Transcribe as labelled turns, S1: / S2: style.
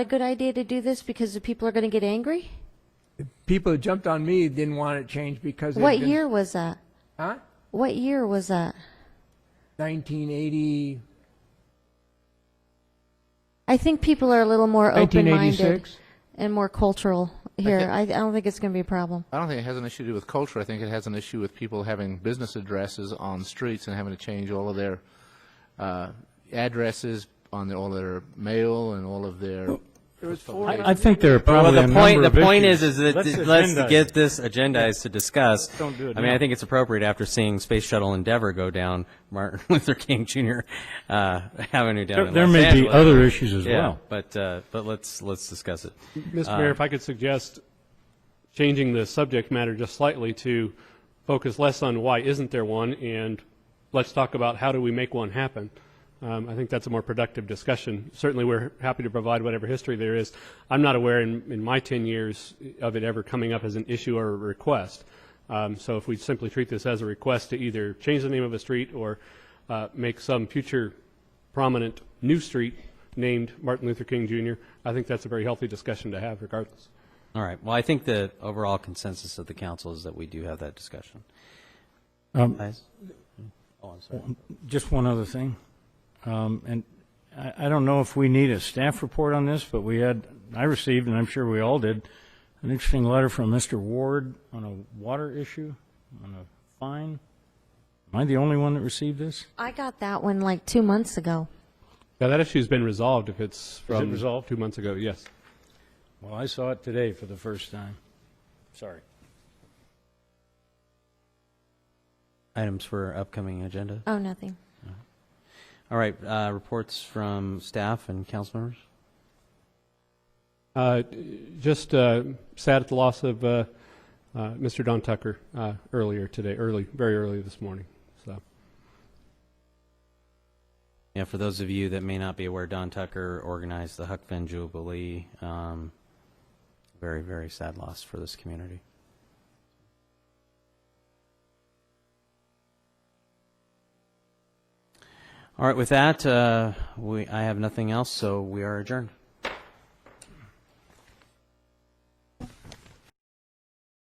S1: a good idea to do this because the people are going to get angry?
S2: People that jumped on me didn't want it changed because. they've
S1: What
S2: been-
S1: year was that?
S2: Huh?
S1: What year was that?
S2: 1980,
S1: I think people are a little more open-minded
S2: 1986.
S1: and more cultural here. I, I don't think it's going to be a problem.
S3: I don't think it has an issue to do with culture. I think it has an issue with people having business addresses on streets and having to change all of their uh, addresses on their, all their mail and all of their.
S4: I think there are
S5: Well,
S4: probably a
S5: the point,
S4: number
S5: the
S4: of
S5: point is,
S4: issues.
S5: is that
S6: Let's
S5: th- let's
S6: agendize
S5: get this agendized to discuss.
S6: Don't do it
S5: I mean,
S6: now.
S5: I think it's appropriate after seeing Space Shuttle Endeavor go down Martin Luther King Jr. uh, Avenue down
S4: There-
S5: in
S4: there
S5: Los
S4: may be
S5: Angeles.
S4: other issues as
S5: Yeah,
S4: well.
S5: But, uh, but let's, let's discuss it.
S7: Mr. Mayor, if I could suggest changing the subject matter just slightly to focus less on why isn't there one, and let's talk about how do we make one happen. Um, I think that's a more productive discussion. Certainly, we're happy to provide whatever history there is. I'm not aware in, in my 10 years of it ever coming up as an issue or a request. Um, So if we simply treat this as a request to either change the name of a street or uh, make some future prominent new street named Martin Luther King Jr., I think that's a very healthy discussion to have regardless.
S5: All right. Well, I think the overall consensus of the council is that we do have that discussion.
S4: Um,
S5: Guys? Oh, I'm sorry.
S4: Just one other thing, um, and I, I don't know if we need a staff report on this, but we had, I received, and I'm sure we all did, an interesting letter from Mr. Ward on a water issue, on a fine. Am I the only one that received this?
S1: I got that one like two months ago.
S7: Now, that issue's been resolved if it's from
S4: resolved?
S7: two months ago, yes.
S4: Well, I saw it today for the first time. Sorry.
S5: Items for upcoming agenda.
S1: Oh, nothing.
S5: All right. Uh, reports from staff and council members.
S7: Uh, Just uh, sad at the loss of uh, uh, Mr. Don Tucker uh, earlier today, early, very early this morning, so.
S5: Yeah, for those of you that may not be aware, Don Tucker organized the Huck Finn Jubilee. Um, very, very sad loss for this community. All right, with that, uh, we, I have nothing else, so we are adjourned.